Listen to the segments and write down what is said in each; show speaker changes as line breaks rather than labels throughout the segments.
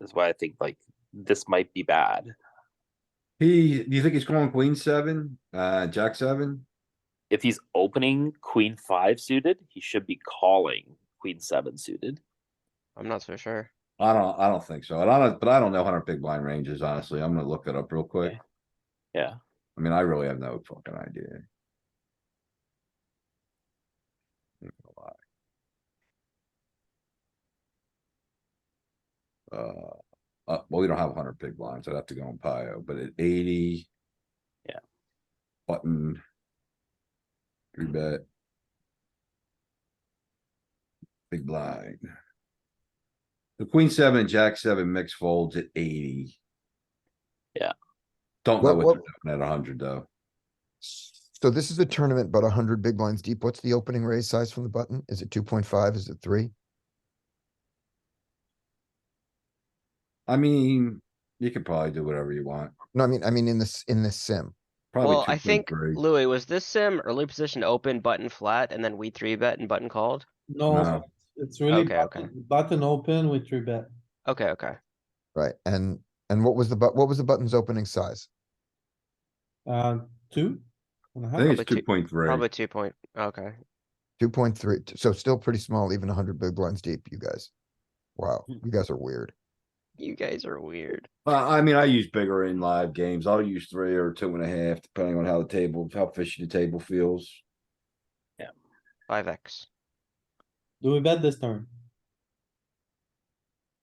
is why I think like this might be bad.
He, do you think he's calling queen seven, uh, jack seven?
If he's opening queen five suited, he should be calling queen seven suited.
I'm not so sure.
I don't, I don't think so. And I don't, but I don't know how our big blind range is, honestly. I'm gonna look that up real quick.
Yeah.
I mean, I really have no fucking idea. Not gonna lie. Uh, uh, well, we don't have hundred big blinds. I'd have to go on Pio, but at eighty.
Yeah.
Button. Three
Mm-hmm.
bet. Big blind. The queen seven, and jack seven mix folds at eighty.
Yeah.
Don't know
What-
what they're doing at hundred though.
So this is a tournament, but hundred big blinds deep. What's the opening raise size from the button? Is it two point five? Is it three?
I mean, you could probably do whatever you want.
No, I mean, I mean, in this, in this sim.
Probably
Well, I
2.3.
think Louis, was this sim early position to open button flat and then we three bet and button called?
No.
No, it's really
Okay, okay.
button button open with three bet.
Okay, okay.
Right, and, and what was the but, what was the button's opening size?
Uh, two. and a
I
half.
think it's
probably
two
two-
point three.
Probably two point, okay.
Two point three, so still pretty small, even hundred big blinds deep, you guys. Wow, you guys are weird.
You guys are weird.
I, I mean, I use bigger in live games. I'll use three or two and a half, depending on how the table, how fishy the table feels.
Five X.
Do we bet this turn?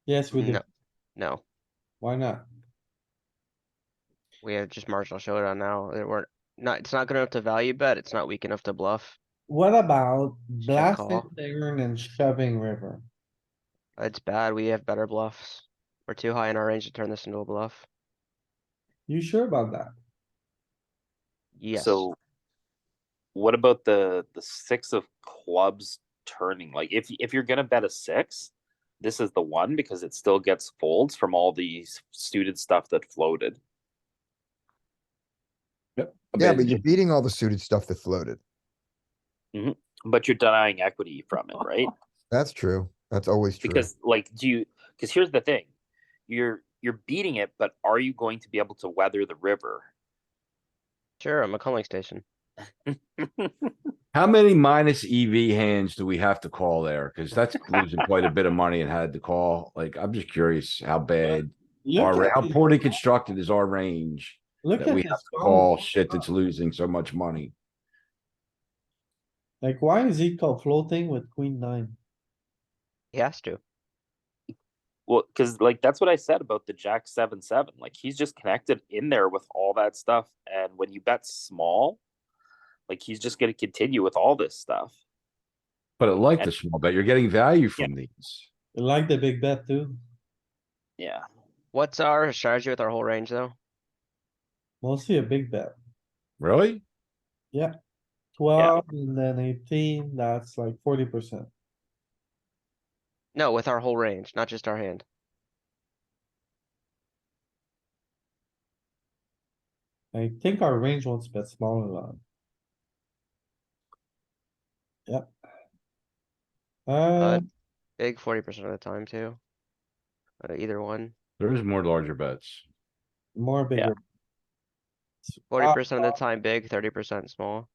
Yes, we do.
No, no.
Why not?
We have just marginal showdown now. It- We're not, it's not good enough to value bet. It's not weak enough to bluff.
What about blasting
call.
turn and shoving river?
It's bad. We have better bluffs. We're too high in our range to turn this into a bluff.
You sure about that?
Yes.
So what about the the six of clubs turning? Like if if you're gonna bet a six, this is the one because it still gets folds from all the s- suited stuff that floated.
I
Yeah,
mean,
but you're beating all the suited stuff that floated.
But you're denying equity from it, right?
That's true. That's always true.
because like do you because here's the thing you're you're beating it but are you going to be able to weather the river
Sure, I'm a calling station.
How many minus EV hands do we have to call there? Cause that's losing quite a bit of money and had to call. Like, I'm just curious how bad,
Look
our ra-
at
how
this-
poorly constructed is our range
Look
that
at
we
this
have to
combo.
call shit that's losing so much money.
Like, why is he called floating with queen nine?
He has to.
well because like that's what i said about the jack 7 7 like he's just connected in there with all that stuff and when you bet small like he's just going to continue with all this stuff
But I like the small bet. You're getting value from these.
You Like the big bet too,
yeah
What's our strategy with our whole range though?
mostly a big bet.
Really?
Twelve and then eighteen, that's like forty percent.
No, with our whole range, not just our hand.
I think our range wants a bit smaller than. Yep. Uh,
Big forty percent of the time too. Uh, either one.
There is more larger bets.
more bigger. S-
Forty
uh,
percent of the time big, thirty percent small.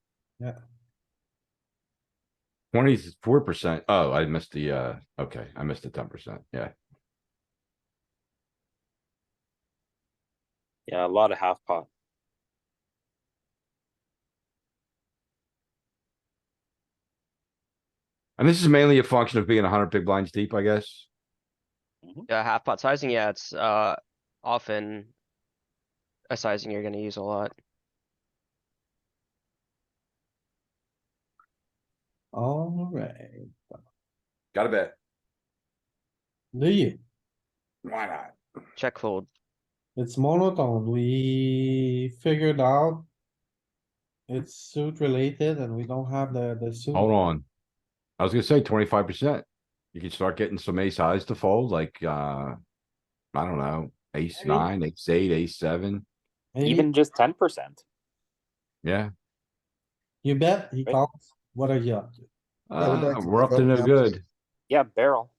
Twenty-four percent. Oh, I missed the, uh, okay, I missed the ten percent. Yeah.
yeah a lot of half pot
And this is mainly a function of being hundred big blinds deep, I guess.
Yeah, half pot sizing, yeah, it's uh often a sizing you're gonna use a lot.
Alright,
Got a bet.
do you?
Why not?
Check fold.
It's monotone, we figured out. It's suit related and we don't have the, the suit.
Hold on. I was gonna say twenty-five percent. You can start getting some ace highs to fold, like, uh, I don't know, ace
Maybe.
nine, ace eight, ace seven.
Maybe
even just 10%
Yeah,
You bet, he calls, what are you up to?
Yeah, we're
Uh,
back to
we're up to
voting
no
now.
good.
yeah barrel